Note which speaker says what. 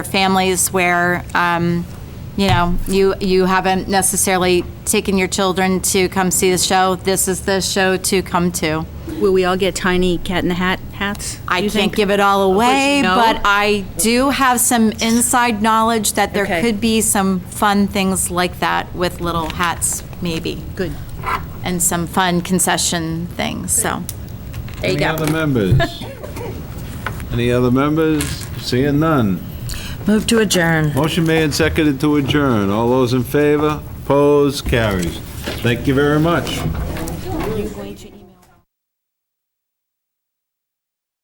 Speaker 1: families where, um, you know, you, you haven't necessarily taken your children to come see the show. This is the show to come to.
Speaker 2: Will we all get tiny cat in the hat hats?
Speaker 1: I
Speaker 2: you
Speaker 1: can't
Speaker 2: think?
Speaker 1: give it all away,
Speaker 2: no?
Speaker 1: but I do have some inside knowledge that there
Speaker 2: Okay.
Speaker 1: could be some fun things like that with little hats, maybe.
Speaker 2: Good.
Speaker 1: And some fun concession things, so. There you
Speaker 3: Any
Speaker 1: go.
Speaker 3: other members? Any other members? Seeing none.
Speaker 4: Move to adjourn.
Speaker 3: Motion made and seconded to adjourn. All those in favor? Opposed? Carries. Thank you very much.